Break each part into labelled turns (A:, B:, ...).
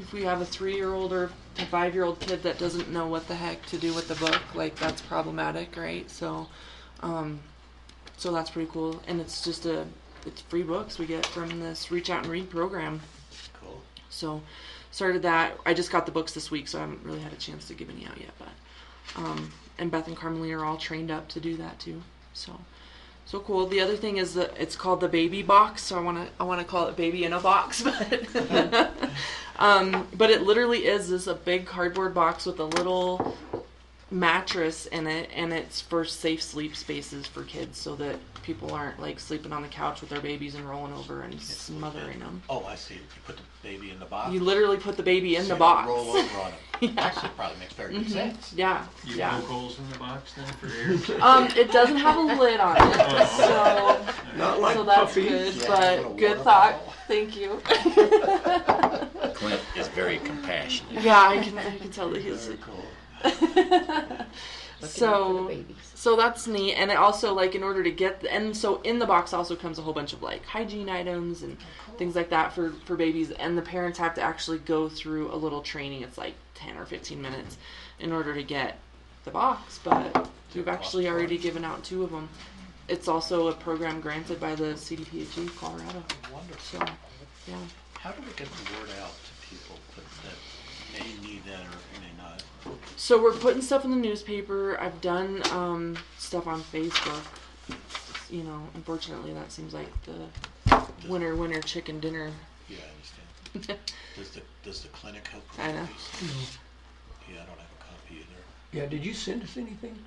A: if we have a three-year-old or a five-year-old kid that doesn't know what the heck to do with the book, like that's problematic, right? So, um, so that's pretty cool, and it's just a it's free books we get from this Reach Out and Read program.
B: Cool.
A: So, started that. I just got the books this week, so I haven't really had a chance to give any out yet. But, um, and Beth and Carmelina are all trained up to do that too. So, so cool. The other thing is that it's called the baby box. So I want to I want to call it baby in a box, but um, but it literally is this a big cardboard box with a little mattress in it, and it's for safe sleep spaces for kids, so that people aren't like sleeping on the couch with their babies and rolling over and smothering them.
B: Oh, I see. You put the baby in the box.
A: You literally put the baby in
B: so
A: the
B: you
A: box.
B: Roll over on it.
A: Yeah. Mm-hmm.
B: Actually, it probably makes very good sense.
A: Yeah,
C: You
A: yeah.
C: poke holes in the box then for air?
A: Um, it doesn't have a lid on it, so
C: Oh.
D: Not like
A: so that's
D: puppies.
A: good.
B: Yeah, what a
A: but good
B: water
A: thought.
B: bottle.
A: Thank you.
E: Clint is very compassionate.
A: yeah, I can I can tell that he's.
B: Very cool.
A: so so that's neat and it also like in order to get and so in the box also comes a whole bunch of like hygiene items and things like that for for babies and the parents have to actually go through a little training it's like 10 or 15 minutes in order to get the box but we've actually already given out two of them it's also a program granted by the cdphg E, colorado so
B: Wonderful.
A: yeah
B: How do we get the word out to people that, that may need that or may not?
A: So we're putting stuff in the newspaper. I've done um, stuff on Facebook. You know, unfortunately, that seems like the winner, winner, chicken dinner.
B: Yeah, I understand. Does the, does the clinic help? with
A: I know.
B: these? Yeah, I don't have a copy either.
D: Yeah, did you send us anything?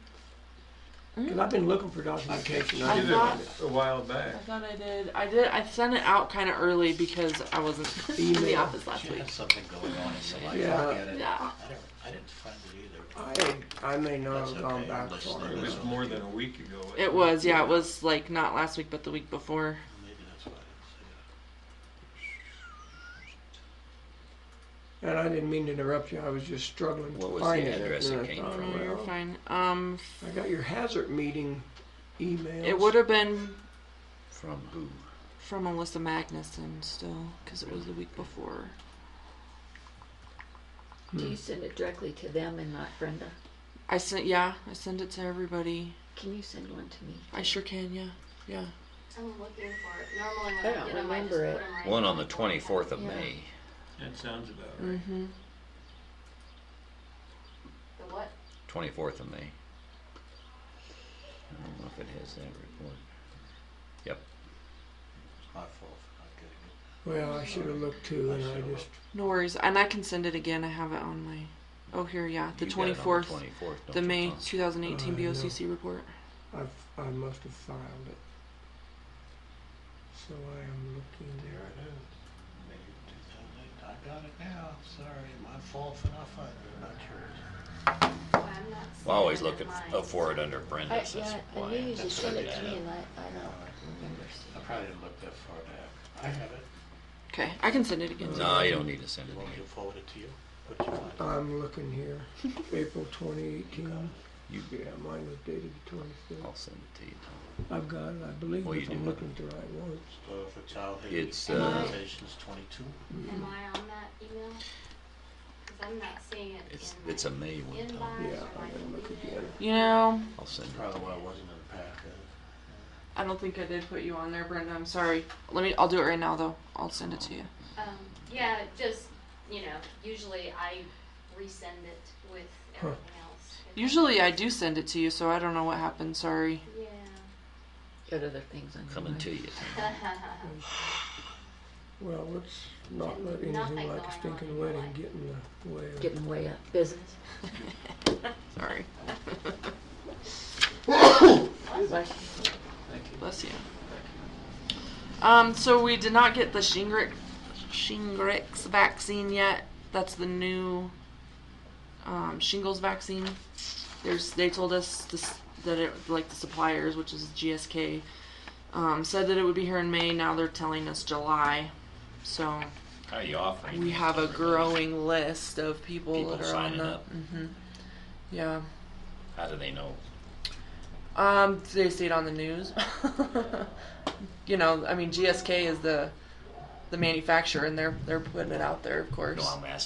A: Mm.
D: Because I've been looking for documentation.
C: I
D: I
C: did
D: didn't
C: it
A: thought-
D: find
C: a while back.
A: I thought I did. I did. I sent it out kind of early because I wasn't in the
D: Email.
A: office last
B: She
A: week.
B: has something going on in your life.
D: Yeah.
B: I get it.
A: Yeah.
B: I don't, I didn't find it either.
D: it. I, I may not
B: That's
D: have gone
B: okay,
D: back
B: let's
D: far
B: leave
C: It
D: enough.
C: was more than a week ago. I
A: It
C: think.
A: was. Yeah, it was like not last week, but the week before.
B: Maybe that's why I
D: And I didn't mean to interrupt you, I was just struggling
E: What
D: to
E: was
D: find
E: the
D: it.
E: address
D: and
E: it
D: I
E: came
D: thought,
A: No,
E: from?
D: well,
A: you're fine. Um,
D: I got your hazard meeting email.
A: it would have been
E: From who?
A: from Alyssa Magnuson still, because it was the week before.
F: Do you send it directly to them and not Brenda?
A: I sent. Yeah, I sent it to everybody.
F: Can you send one to me?
A: I sure can. Yeah. Yeah.
G: I'm looking for it. Normally when
F: I
G: I,
F: don't
G: get 'em, I just
F: remember
G: put
F: it.
G: 'em right
E: One
G: in
E: on the
G: my
E: twenty-fourth of
G: Yeah.
E: May.
C: That sounds about right.
A: Mm-hmm.
G: The what?
E: Twenty-fourth of May. I don't know if it has that report. Yep.
B: said it. My fault for not getting it.
D: Well, I should have looked too, and I just,
A: No worries, and I can send it again. I have it on my. Oh, here, yeah, the twenty fourth,
E: Twenty-fourth.
A: the May two thousand eighteen
D: Uh, yeah.
A: BOCC report.
D: I, I must have filed it. So I am looking
B: There
D: there.
B: it is. May 2008. I got it now. Sorry, my fault for not finding it. Not yours.
G: Well, I'm not
E: I always
G: seeing
E: look at,
G: mine.
E: up for it under Brenda's, that's
F: I
E: why.
F: knew you
E: I-
F: just
B: send it
F: sent
B: to
F: Uh, it to
B: me
F: me
B: and
F: and I, I don't remember
B: I probably didn't look that far back. I have it.
A: Okay, I can send it again.
E: No, you don't need to send
B: You
E: it
B: want me
E: again.
B: to forward it to you? What do you want?
D: I'm looking here, April twenty eighteen.
E: You,
D: Yeah, mine was dated the twenty-fifth.
E: I'll send it to you.
D: I've got it, I believe,
E: Well, you
D: if
E: do
D: I'm
E: have
D: looking at the right ones.
B: Store for childhood.
E: It's,
G: uh,
B: Limitations twenty-two.
G: Am I on that email? Because I'm not seeing it
E: It's,
G: in my
E: it's a May one,
G: inbox
E: Tom.
D: Yeah,
G: or
D: I
G: my
D: didn't look
G: email.
D: again.
A: You know,
E: I'll send it.
B: Probably why it wasn't in the packet.
A: I don't think I did put you on there, Brenda. I'm sorry. Let me. I'll do it right now, though. I'll send it to you.
G: Um, yeah, just, you know, usually I resend it with
D: Huh.
G: everything else.
A: Usually, I do send it to you, so I don't know what happened. Sorry.
G: Yeah.
F: Got other things on your
E: Coming
F: mind.
E: to you.
A: Hmm.
D: Well, let's not let
G: Nothing
D: anything
G: going
D: like a
G: on in
D: stinking
G: your
D: wedding
G: life.
D: get in the way of.
F: Getting way up business.
A: Sorry.
F: Bless you.
A: Bless you. Um, so we did not get the Shingrix, Shingrix vaccine yet. That's the new um, shingles vaccine. There's they told us this, that it like the suppliers, which is GSK, um, said that it would be here in May. Now they're telling us July. So
E: How are you offering?
A: we
E: these
A: have
E: to
A: a
E: everybody?
A: growing list of people,
E: People
A: that are on
E: signing
A: the.
E: up.
A: hmm Yeah.
E: How do they know?
A: Um, they see it on the news. you know, I mean, GSK is the the manufacturer and they're they're putting it out there, of course.
E: No, I'm asking.